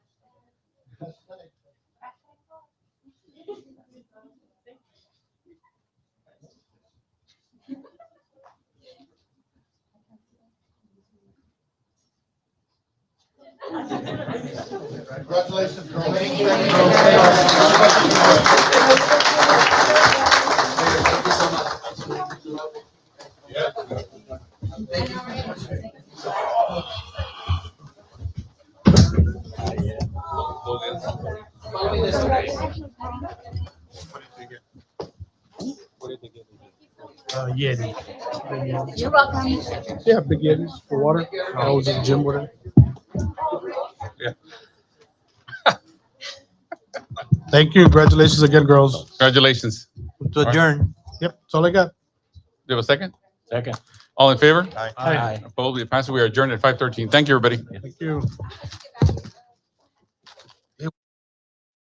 Congratulations, Colleen. Thank you. Thank Uh, Yeti. You're welcome. Yeah, big Yetis for water. I was in the gym with her. Yeah. Thank you. Congratulations again, girls. Congratulations. you. To adjourn. Yep, that's all I got. Do you have a second? Second. All in favor? Aye. Opposed? It passes. We are adjourned at 5:13. Thank you, everybody. Thank you.